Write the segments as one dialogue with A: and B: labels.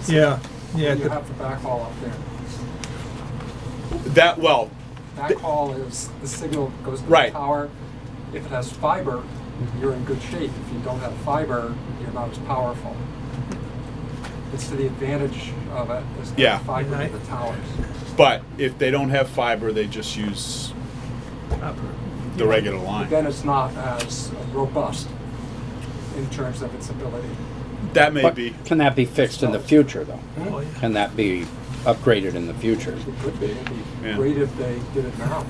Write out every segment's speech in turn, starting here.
A: is.
B: Yeah, yeah,
A: You
B: the-
A: have the backhaul up there.
C: That, well,
A: Backhaul is, the signal goes to the
C: Right.
A: tower. If it has fiber, you're in good shape. If you don't have fiber, you're not as powerful. It's to the advantage of it, is to
C: Yeah.
A: have fiber to the towers.
C: but if they don't have fiber, they just use the regular line.
A: Then it's not as robust in terms of its ability.
C: That may
D: But
C: be.
D: Can that be fixed in the future, though?
B: Oh, yeah.
D: Can that be upgraded in the future?
A: It could be, it'd be
C: Yeah.
A: great if they did it now.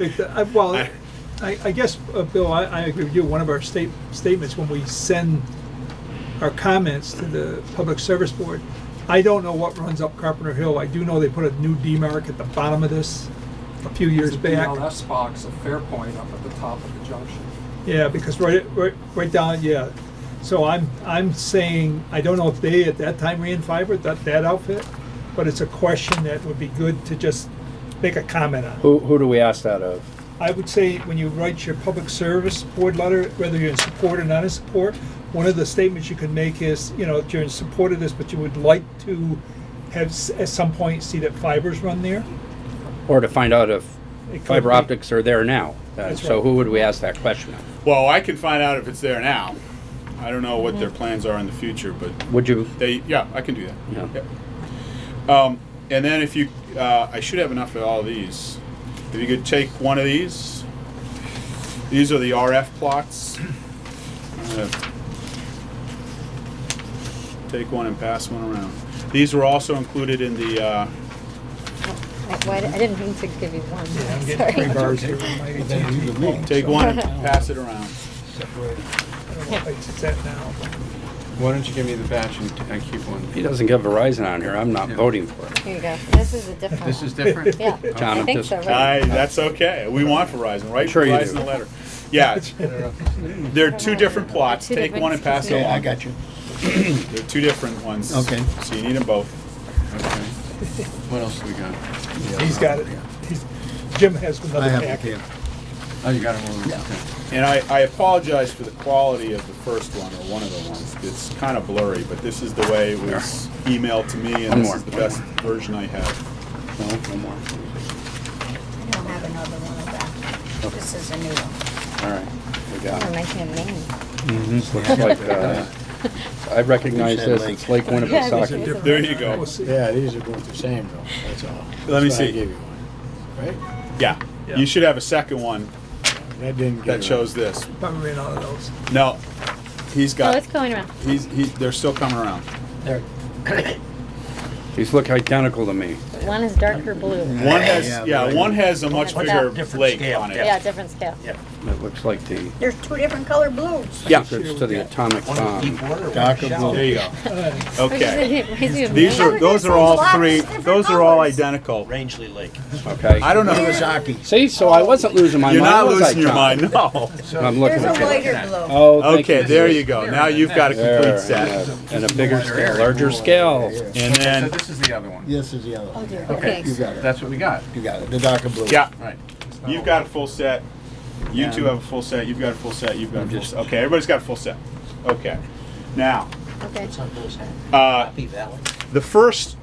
B: It- I- Well,
C: I-
B: I, I guess, uh, Bill, I, I agree with you. One of our state, statements when we send our comments to the Public Service Board, I don't know what runs up Carpenter Hill. I do know they put a new demarc at the bottom of this a few years back.
A: The BLS box at Fairpoint up at the top of the junction.
B: Yeah, because right, right, right down, yeah. So I'm, I'm saying, I don't know if they at that time ran fiber, that, that outfit, but it's a question that would be good to just make a comment on.
D: Who, who do we ask that of?
B: I would say when you write your public service board letter, whether you're in support or not in support, one of the statements you can make is, you know, that you're in support of this, but you would like to have, s- at some point, see that fibers run there.
D: Or to find out if
B: It could
D: fiber
B: be-
D: optics are there now? Uh,
B: That's
D: So
B: right.
D: who would we ask that question of?
C: Well, I can find out if it's there now. I don't know what their plans are in the future, but
D: Would you,
C: they, yeah, I can do that.
D: Yeah.
C: Yep. Um, and then if you, uh, I should have enough of all these. If you could take one of these, these are the RF plots. Uh, I'm gonna Take one and pass one around. These were also included in the, uh,
E: I, why di- I didn't mean to give you one.
B: Yeah, I'm getting three
E: Sorry.
B: bars here. with my AT&T.
C: take one and pass it around.
B: I don't know if it's that now, but-
F: Why don't you give me the batch and I keep
D: he
F: one?
D: doesn't get Verizon on here, I'm not
F: Yeah.
D: voting for it.
E: Here you go. This is a different
F: This
E: one.
F: is different?
E: yeah,
D: John,
E: I
D: I'm
E: think
D: just-
E: so, right?
C: Aye, that's okay. We want Verizon, right?
D: Sure you
C: Verizon
D: do.
C: the letter. Yeah, there are two different plots.
E: Two
C: Take
E: different-
C: one and pass it
E: Okay,
C: along.
E: I
F: you.
C: They're two different ones.
F: Okay.
C: So you need them both.
F: Okay. What else do we got?
B: He's got it. He's- Jim has another packet.
F: Oh, you got it one? Okay.
C: And I, I apologize for the quality of the first one, or one of the ones. It's kind of blurry, but this is the way it was emailed to me,
D: One
C: and this
D: more,
C: is the
D: one
C: best version I have.
D: No, no more.
G: I don't have another one of that. This is a new one.
D: All right, we got
E: I'm
D: it.
E: making a name.
D: This looks like, uh, I recognize this, it's Lake
E: Yeah, this is
D: Winnipesaukee.
E: a-
C: There you go.
B: We'll see.
H: Yeah, these are both the same though, that's all.
C: Let me
H: That's why I
C: see.
H: gave you one, right?
C: Yeah.
B: Yeah.
C: You should have a second one
H: That didn't get.
C: that shows this.
B: Probably ran out of those.
C: No, he's
E: Oh,
C: got,
E: it's going around.
C: he's, he, they're still coming around.
D: These look identical to me.
E: One is darker blue.
C: One has,
H: Yeah,
C: yeah,
H: like-
C: one has a much
E: One's
C: bigger
E: up.
C: lake on it.
E: Yeah, different scale.
D: It looks like the
G: There's two different color blues.
C: Yeah.
D: secrets to the atomic bomb.
H: Darker blue.
C: There you go. Okay. These
E: These
C: are, those are all three, those are all identical.
I: Rangeley Lake.
D: Okay.
C: I don't know.
H: Kawasaki.
D: See, so I wasn't losing my
C: You're
D: mind.
C: not
D: was I,
C: losing your
D: John?
C: mind, no.
D: I'm looking
G: There's a
D: at you.
G: lighter blue.
D: Oh, thank
C: Okay, there
D: sir.
C: you go. Now you've got a
D: There,
C: complete
D: and
C: set.
D: a- And a bigger scale, larger scale.
F: Okay,
C: And
F: So
C: then,
F: this is the other one.
H: This is the other
E: Oh
H: one.
E: dear,
F: Okay.
E: okay.
H: You got it,
F: That's what we got.
H: you got it, the darker blue.
C: yeah,
F: All right.
C: you've got a full set. You two have a full set, you've got a full set, you've got a full set. Okay, everybody's got a full set. Okay. Now,
E: Okay.
C: uh,
I: Happy Valley.
C: the first,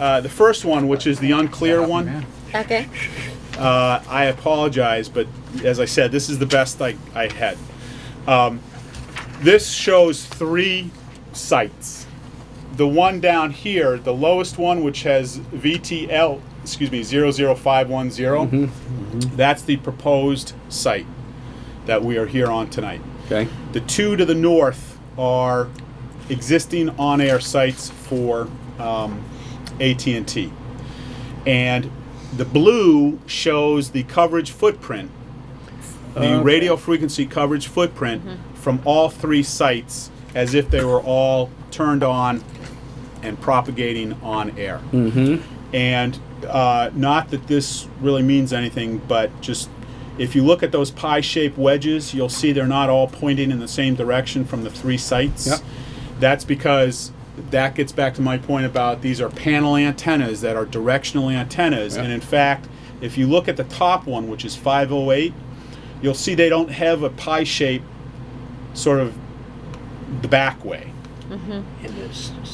C: uh, the first one, which is the unclear one,
F: Oh, Man.
E: Okay.
C: uh, I apologize, but as I said, this is the best I, I had. Um, this shows three sites. The one down here, the lowest one, which has VTL, excuse me, 00510, that's the proposed site that we are here on tonight.
D: Okay,
C: The two to the north are existing on-air sites for um, AT&T, and the blue shows the coverage footprint, the radio frequency coverage footprint from all three sites, as if they were all turned on and propagating on air. And uh, not that this really means anything, but just if you look at those pie shaped wedges, you'll see they're not all pointing in the same direction from the three sites.
D: Yep.
C: That's because that gets back to my point about these are panel antennas that are directional antennas. And in fact, if you look at the top one, which is 508, you'll see they don't have a pie shape sort of the back way.
I: And it's